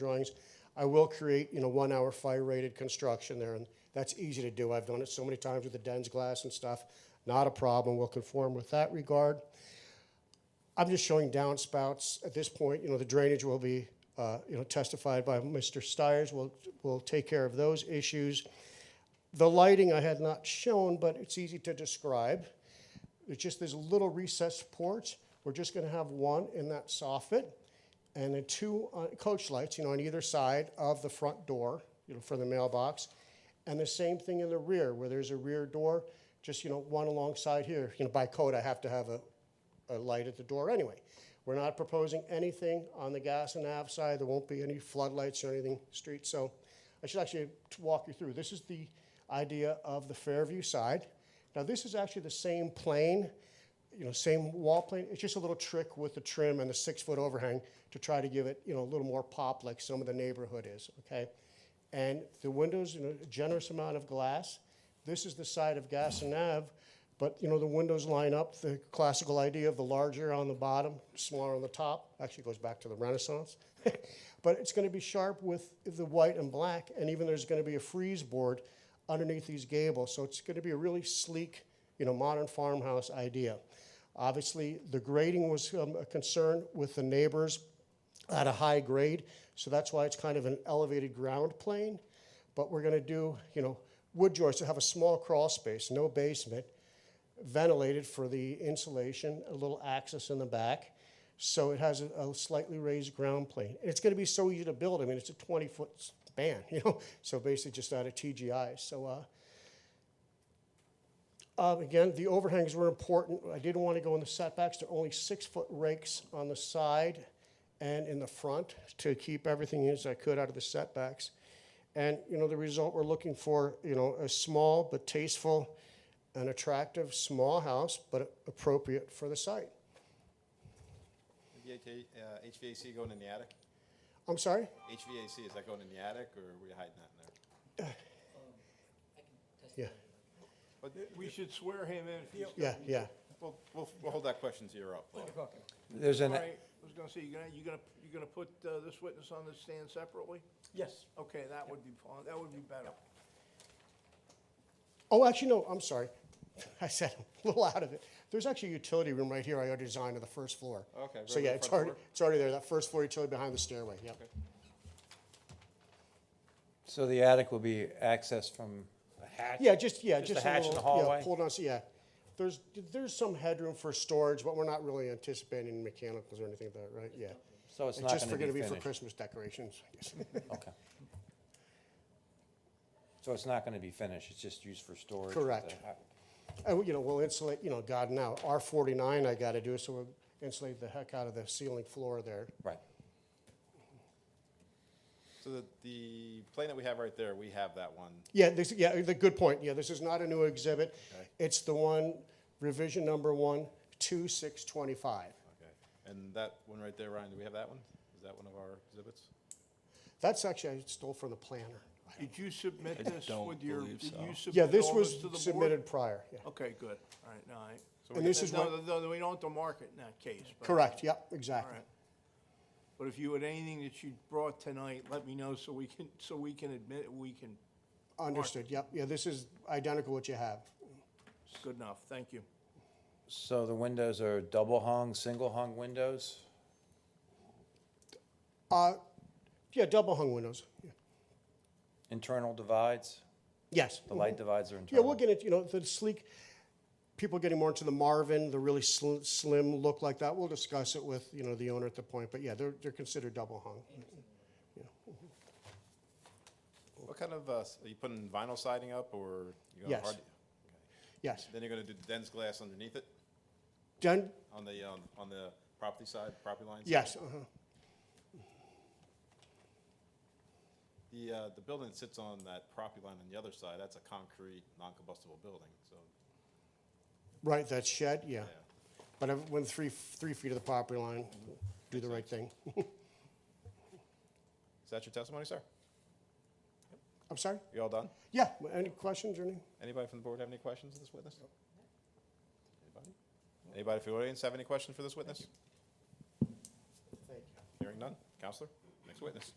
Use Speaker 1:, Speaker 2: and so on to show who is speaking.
Speaker 1: drawings. I will create, you know, one-hour fire-rated construction there, and that's easy to do. I've done it so many times with the den's glass and stuff. Not a problem. We'll conform with that regard. I'm just showing downspouts at this point. You know, the drainage will be, uh, you know, testified by Mr. Stires. We'll, we'll take care of those issues. The lighting I had not shown, but it's easy to describe. It's just this little recessed porch. We're just going to have one in that soffit and then two uh, coach lights, you know, on either side of the front door, you know, for the mailbox. And the same thing in the rear where there's a rear door, just, you know, one alongside here. You know, by code, I have to have a, a light at the door anyway. We're not proposing anything on the gas and nav side. There won't be any floodlights or anything street. So I should actually t- walk you through. This is the idea of the Fairview side. Now, this is actually the same plane, you know, same wall plane. It's just a little trick with the trim and the six-foot overhang to try to give it, you know, a little more pop like some of the neighborhood is, okay? And the windows, you know, a generous amount of glass. This is the side of Gasson Ave, but, you know, the windows line up, the classical idea of the larger on the bottom, smaller on the top, actually goes back to the Renaissance. But it's gonna be sharp with the white and black, and even there's gonna be a freeze board underneath these gables, so it's gonna be a really sleek, you know, modern farmhouse idea. Obviously, the grading was um, a concern with the neighbors at a high grade, so that's why it's kind of an elevated ground plane. But we're gonna do, you know, wood joists, to have a small crawl space, no basement, ventilated for the insulation, a little access in the back. So it has a, a slightly raised ground plane. And it's gonna be so easy to build, I mean, it's a twenty-foot span, you know? So basically just out of TGI, so, uh, um, Again, the overhangs were important. I didn't want to go in the setbacks. They're only six-foot rakes on the side and in the front to keep everything as I could out of the setbacks. And, you know, the result we're looking for, you know, a small but tasteful and attractive small house, but appropriate for the site.
Speaker 2: The AK uh, HVAC going in the attic?
Speaker 1: I'm sorry?
Speaker 2: HVAC, is that going in the attic, or are we hiding that in there?
Speaker 1: Yeah,
Speaker 2: But
Speaker 3: We should swear him in if he's. gonna
Speaker 1: yeah,
Speaker 3: be-
Speaker 1: yeah.
Speaker 2: we'll, we'll, we'll hold that question to your up. Paul.
Speaker 4: There's
Speaker 3: All
Speaker 4: an,
Speaker 3: right, I was gonna say, you're gonna, you're gonna, you're gonna put uh, this witness on the stand separately?
Speaker 5: Yes.
Speaker 3: Okay, that would be, fine. that would be better.
Speaker 1: Oh, actually, no, I'm sorry. I said I'm a little out of it. There's actually a utility room right here I already designed on the first floor.
Speaker 2: Okay,
Speaker 1: So
Speaker 2: right
Speaker 1: yeah,
Speaker 2: on the
Speaker 1: it's
Speaker 2: front
Speaker 1: already,
Speaker 2: floor?
Speaker 1: it's already there, that first floor utility behind the stairway, yep.
Speaker 4: so the attic will be accessed from a hatch?
Speaker 1: Yeah, just, yeah,
Speaker 4: Just a
Speaker 1: just
Speaker 4: hatch
Speaker 1: a little,
Speaker 4: in the
Speaker 1: yeah,
Speaker 4: hallway?
Speaker 1: pull down, so, yeah. There's, there's some headroom for storage, but we're not really anticipating mechanicals or anything like that, right? Yeah.
Speaker 4: So it's
Speaker 1: It's
Speaker 4: not
Speaker 1: just for
Speaker 4: going to
Speaker 1: gonna
Speaker 4: be
Speaker 1: be for
Speaker 4: finished?
Speaker 1: Christmas decorations, I guess.
Speaker 4: Okay. So it's not going to be finished, it's just used for storage? with
Speaker 1: Correct.
Speaker 4: the ha-
Speaker 1: And, you know, we'll insulate, you know, God, now, R forty-nine I gotta do, so we'll insulate the heck out of the ceiling floor there.
Speaker 4: Right.
Speaker 2: So the, the plane that we have right there, we have that one.
Speaker 1: Yeah, this, yeah, the, good point, yeah, this is not a new exhibit. It's the one, revision number one, two six twenty-five.
Speaker 2: Okay. And that one right there, Ryan, do we have that one? Is that one of our exhibits?
Speaker 1: That's actually, I stole from the planner.
Speaker 3: Did you submit this with your, did you
Speaker 1: Yeah,
Speaker 3: submit
Speaker 1: this
Speaker 3: all
Speaker 1: was
Speaker 3: this to the board?
Speaker 1: submitted prior, yeah.
Speaker 3: Okay, good, all right, all right.
Speaker 1: And this is what,
Speaker 3: No, no, no, we don't have to mark it in that case. but-
Speaker 1: correct, yep,
Speaker 3: All
Speaker 1: exactly.
Speaker 3: right. But if you had anything that you brought tonight, let me know so we can, so we can admit, it, we can,
Speaker 1: Understood, yep, yeah, this is identical what you have.
Speaker 3: good enough, thank you.
Speaker 4: So the windows are double hung, single hung windows?
Speaker 1: Uh, yeah, double hung windows, yeah.
Speaker 4: Internal divides?
Speaker 1: yes.
Speaker 4: The light divides are
Speaker 1: Mm-hmm. Yeah,
Speaker 4: internal?
Speaker 1: we'll get it, you know, the sleek, people getting more into the Marvin, the really sl- slim look like that, we'll discuss it with, you know, the owner at the point, but yeah, they're, they're considered double hung.
Speaker 2: What kind of, uh, s- are you putting vinyl siding up, or? you gonna
Speaker 1: Yes.
Speaker 2: hard-
Speaker 1: Yes,
Speaker 2: Then you're gonna do the dense glass underneath it,
Speaker 1: done,
Speaker 2: on the, um, on the property side, property lines?
Speaker 1: yes, uh-huh.
Speaker 2: The, uh, the building that sits on that property line on the other side, that's a concrete, non-combustible building, so,
Speaker 1: right, that shed, yeah.
Speaker 2: yeah.
Speaker 1: But I went three, three feet of the property line, do the right thing.
Speaker 2: Is that your testimony, sir?
Speaker 1: I'm sorry?
Speaker 2: You all done?
Speaker 1: Yeah, any questions or anything?
Speaker 2: Anybody from the board have any questions of this witness? Anybody? Anybody from the audience have any questions for this witness? Hearing none. Counselor, next witness.